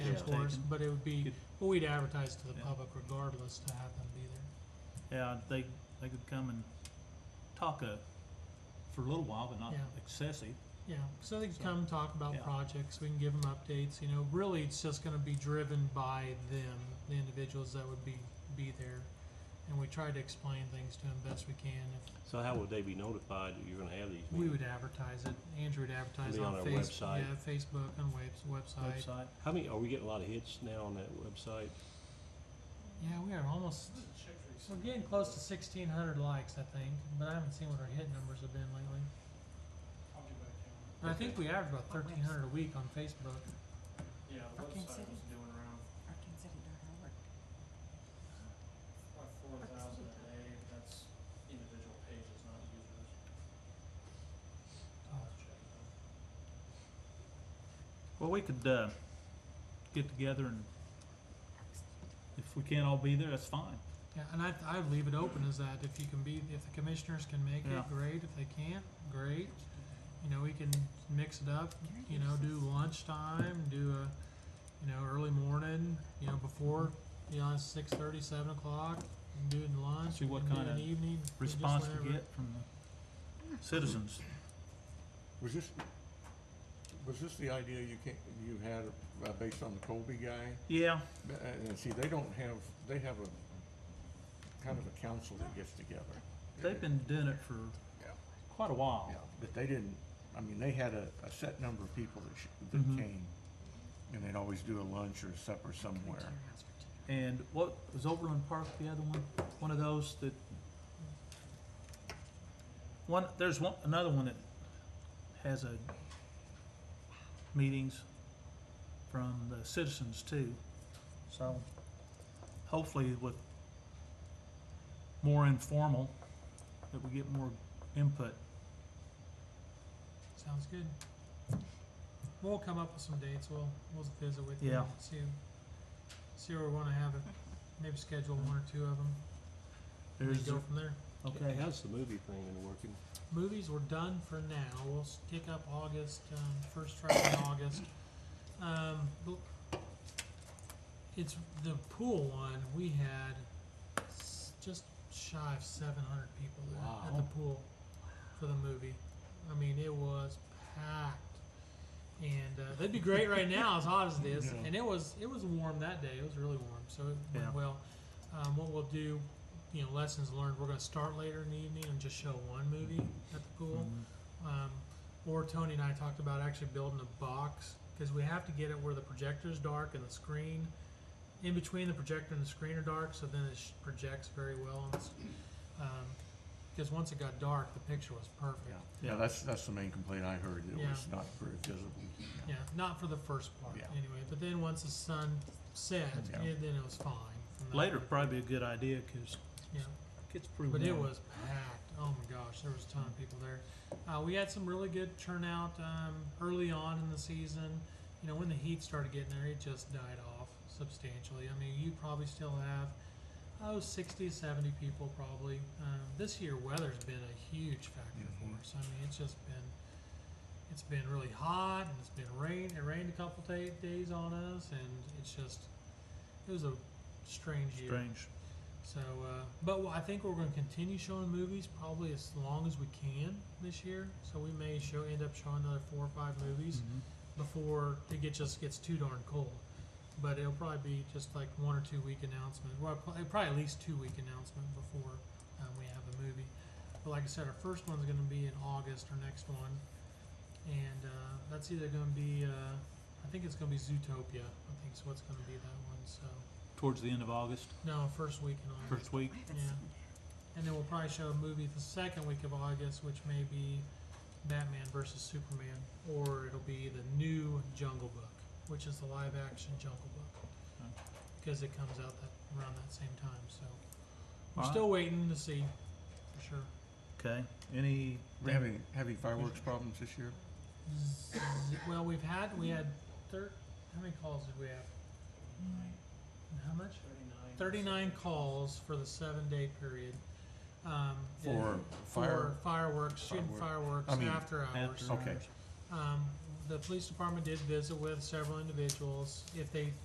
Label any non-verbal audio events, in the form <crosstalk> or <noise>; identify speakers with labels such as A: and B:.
A: of
B: taken.
A: course, but it would be,
B: Good.
A: well, we'd advertise to the
B: Yeah.
A: public regardless to have them be there.
B: Yeah, they, they could come and talk uh for a little while, but not
A: Yeah.
B: excessive.
A: Yeah, so they can
B: So,
A: come talk
B: yeah.
A: about projects, we can give them updates, you know, really it's just gonna be driven by them, the individuals that would be, be there. And we try to explain things to them best we can. If
C: So how would they be notified that you're gonna have these
A: we
C: meetings?
A: would advertise it, Andrew would advertise
C: Be on
A: on
C: our
A: Facebook,
C: website.
A: yeah, Facebook, on webs, website.
B: Website,
C: How many, are we getting a lot of hits now on that website?
A: Yeah, we are almost, we're getting close to sixteen hundred likes, I think, but I haven't seen what our hit numbers have been lately.
D: I'll get back to you.
A: And I think we average about
E: On
A: thirteen hundred a week on Facebook.
D: Yeah, the
E: Parking
D: website
E: city?
D: was doing around like four thousand a day, but that's individual pages, not users. I'll have to check it out.
B: well, we could, uh, get together and if we can't all be there, that's fine.
A: Yeah, and I, I leave it open as that, if you can be, if the commissioners can make
B: Yeah.
A: it, great, if they can't, great. You know, we can mix it up, you know, do lunchtime, do a, you know, early morning, you know, before, you know, six thirty, seven o'clock, you can do it in lunch,
B: See
A: you
B: what
A: can do
B: kind
A: it in
B: of
A: the evening, you just
B: Response we
A: whatever.
B: get from the citizens.
F: Was this, was this the idea you can you had uh, based on the Colby guy?
B: Yeah,
F: Uh, And see, they don't have, they have a, kind of a council that gets together.
B: they've been doing it for
F: Yeah.
B: quite a while.
F: Yeah, But they didn't, I mean, they had a, a set number of people that sh that
A: Mm-hmm.
B: Mhm.
F: came. And they'd always do a lunch or a supper somewhere.
B: And what, was Overland Park the other one? One of those that, one, there's one, another one that has a meetings from the citizens too. So hopefully with more informal, that we get more input.
A: Sounds good. We'll come up with some dates, we'll, we'll visit with you,
B: Yeah.
A: and see, see where we wanna have it, maybe schedule one or two of them, and then
B: There's,
A: go from there.
B: okay,
C: How's the movie thing been working?
A: movies were done for now. We'll s- pick up August, um, first Friday
B: <coughs>
A: in August. Um, bl- it's the pool one. We had s- just shy of 700 people there at the
B: Wow.
A: pool for the movie. I mean, it was packed. And uh, that'd be great right now, as hot as it
B: <laughs>
A: is.
F: Yeah.
A: And it was it was warm that day. It was really warm, so it went
B: Yeah.
A: well. Um, what we'll do you know, lessons learned. We're going to start later in the evening and just show one movie at the pool.
B: Mhm.
F: Mm-hmm.
A: Um, or Tony and I talked about actually building a box because we have to get it where the projector's dark and the screen, in between the projector and the screen are dark, so then it sh- projects very well. on the s- Um, because once it got dark, the picture was perfect.
F: Yeah,
B: Yeah.
F: yeah, that's, that's the main complaint I heard, it
A: Yeah.
F: was not very visible.
A: Yeah, not for the first part
F: Yeah.
A: anyway. But then once the sun set,
F: Yeah.
A: it, then it was fine. from that
B: later
A: point.
B: probably a good idea, cause
A: Yeah.
B: it gets pretty warm.
A: But it was packed. Oh my gosh, there was a ton of people there. Uh, we had some really good turnout um, early on in the season. You know, when the heat started getting there, it just died off substantially. I mean, you probably still have oh 60, 70 people probably. Um, this year, weather's been a huge factor
F: Mhm.
A: for us. I mean, it's just been it's been really hot and it's been rain. It rained a couple ta days on us, and it's just it was a strange year.
B: Strange.
A: So, uh, but I think we're going to continue showing movies probably as long as we can this year. So we may show end up showing another four or five movies
B: Mhm.
A: before it get, just gets too darn cold. But it'll probably be just like one or two week announcement. Well, pro- probably at least two week announcement before um, we have the movie. But like I said, our first one's going to be in August, our next one, and uh, that's either going to be uh, I think it's going to be Zootopia. I think is what's going to be that one. So
B: Towards the end of August,
A: no, first week in August.
B: first week.
A: Yeah. And then we'll probably show a movie the second week of August, which may be Batman versus Superman, or it'll be the new Jungle Book, which is the live action Jungle Book,
B: Okay.
A: because it comes out that, around that same time. So we're
B: Alright.
A: still waiting to see, for sure.
B: Okay, any?
F: We're having, having fireworks problems this year?
A: Z- well, we've had we had thir- how many calls did we have? How much?
D: Thirty-nine.
A: Thirty-nine calls for the seven-day period. Um,
F: For fire,
A: for fireworks, shooting fireworks
F: I mean,
A: after hours.
B: after
F: okay.
A: Um, the police department did visit with several individuals. If they